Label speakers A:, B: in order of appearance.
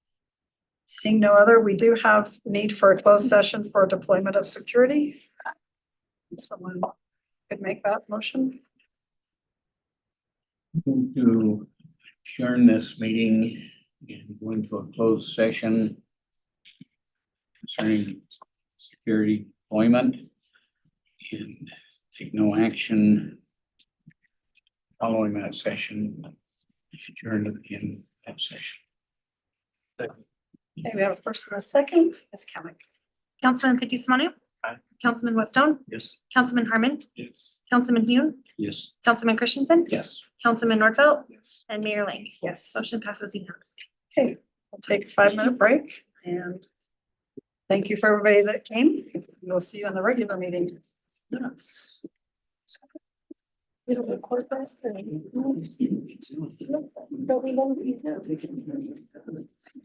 A: Seeing no other, we do have need for a closed session for deployment of security. Someone could make that motion.
B: Move to adjourn this meeting and go into a closed session concerning security deployment and take no action following that session, adjourn in that session.
A: Okay, we have a first and a second, Ms. Kamic.
C: Councilman Fifty Umanu.
B: Aye.
C: Councilman Whitstone,
B: Yes.
C: Councilman Harmon,
B: Yes.
C: Councilman Hune,
B: Yes.
C: Councilman Christensen,
B: Yes.
C: Councilman Nordfelt,
B: Yes.
C: and Mayor Ling.
A: Yes,
C: Motion passes unanimously.
A: okay, we'll take a five minute break and thank you for everybody that came. We'll see you on the regular meeting. Minutes.
D: It'll record us and. But we don't, we do